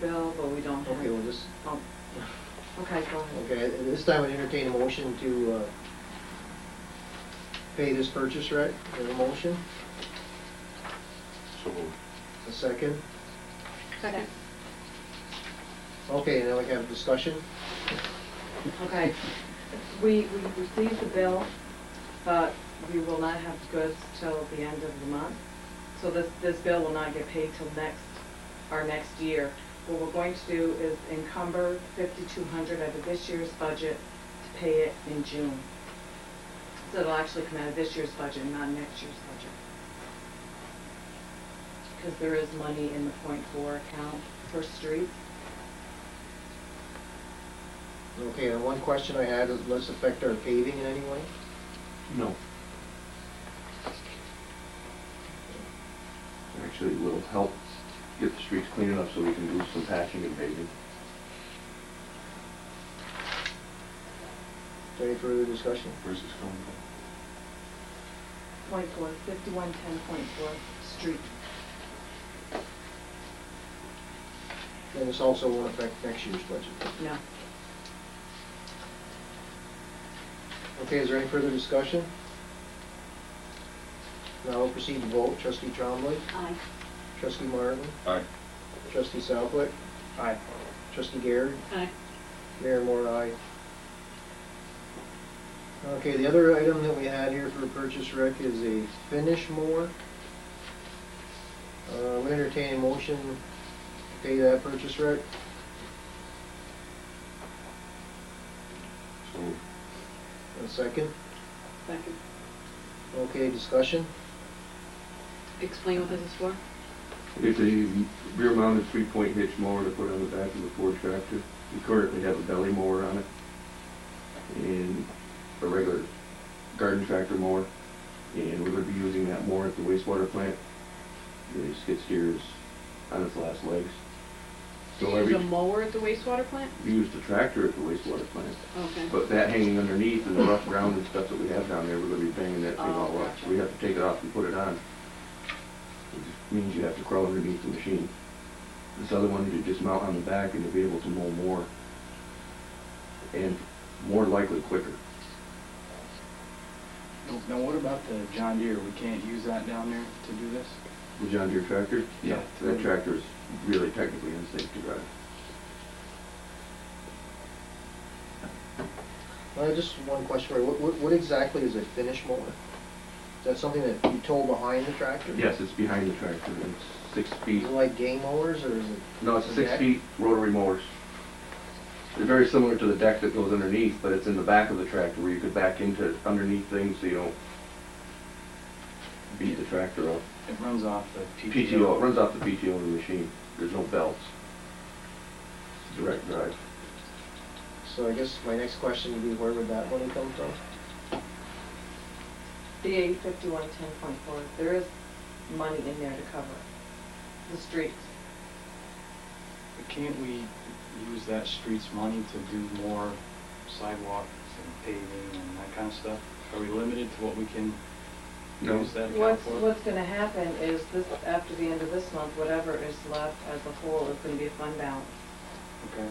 bill, but we don't have. Okay, we'll just, Oh, Okay, go ahead. okay, at this time I entertain a motion to, uh, pay this purchase right? There's a motion, So moved. a second. Second. Okay, now we have discussion. Okay. We, we received the bill, but we will not have goods till the end of the month. So this, this bill will not get paid till next, our next year. What we're going to do is encumber fifty-two hundred out of this year's budget to pay it in June. So it'll actually come out of this year's budget, not next year's budget. Because there is money in the point four account for streets. Okay, and one question I had is, does this affect our paving in any way? No. Actually, it will help get the streets clean enough so we can do some patching and paving. Is there Any further discussion? Where's this coming from? Point four, fifty-one ten point four, street. And this also won't affect next year's budget. No. Okay, is there any further discussion? Now we'll proceed to vote. Trustee Trombley, Aye. trustee Martin, Aye. trustee Southwick. Aye. Trustee Garrett. Aye. Mayor Moore, aye. Okay, the other item that we had here for purchase rec is a finish mower. Uh, we entertain a motion to pay that purchase rec. So moved. A second. Second. Okay, discussion? Explain what this is for? It's a rear mounted three point hitch mower to put on the back of the Ford tractor. We currently have a belly mower on it and a regular garden tractor mower. And we're gonna be using that mower at the wastewater plant. The skid steer is on its last legs. Do So you use every, a mower at the wastewater plant? we use the tractor at the wastewater plant. Okay. But that hanging underneath and the rough ground and stuff that we have down there, we're gonna be banging that thing Oh, all up. gotcha. We have to take it off and put it on. It just Means you have to crawl underneath the machine. This other one, you just mount on the back and you'll be able to mow more. And more likely quicker. Now, what about the John Deere? We can't use that down there to do this? The John Deere tractor? Yeah. That tractor is really technically unsafe to drive. Uh, just one question for you. What, what- what exactly is a finish mower? Is that something that you tow behind the tractor? Yes, it's behind the tractor, it's six Is feet. it like game mowers or is it? No, it's a six Okay. feet rotary mowers. They're very similar to the deck that goes underneath, but it's in the back of the tractor where you could back into underneath things so you don't beat the tractor up. It runs off the PTO. PTO, it runs off the PTO of the machine. There's no belts. Direct drive. So I guess my next question would be where would that money come from? The A fifty-one ten point four, there is money in there to cover the streets. But Can't we use that street's money to do more sidewalks and paving and that kind of stuff? Are we limited to what we can No. use that account What's, for? what's gonna happen is this, after the end of this month, whatever is left as a whole is gonna be a fund balance Okay.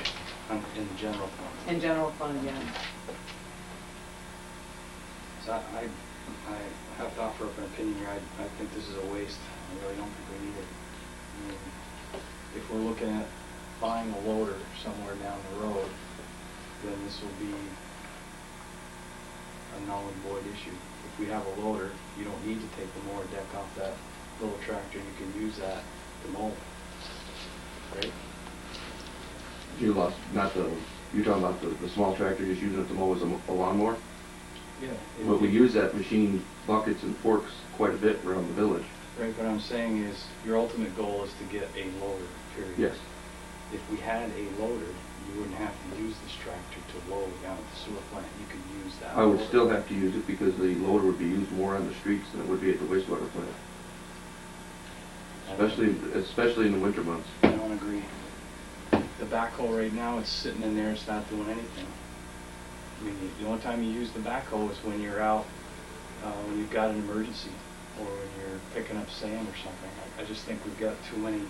Um, In the general fund? in general fund, yeah. So I, I I have to offer up an opinion here. I, I think this is a waste. I really don't think we need it. I mean, If we're looking at buying a loader somewhere down the road, then this will be a null and void issue. If we have a loader, you don't need to take the mower deck off that little tractor. You can use that to mow, right? You lost, not the, you're talking about the, the small tractor just using it to mow as a mo- a lawnmower? Yeah. But we use that machine buckets and forks quite a bit around the village. Right, what I'm saying is, your ultimate goal is to get a loader, period. Yes. If we had a loader, you wouldn't have to use this tractor to load down at the sewer plant, you could use that. I would loader. still have to use it because the loader would be used more on the streets than it would be at the wastewater plant, I don't- especially, especially in the winter months. I don't agree. The backhoe right now, it's sitting in there, it's not doing anything. I mean, the only time you use the backhoe is when you're out, uh, when you've got an emergency, or when you're picking up sand or something. I- I just think we've got too many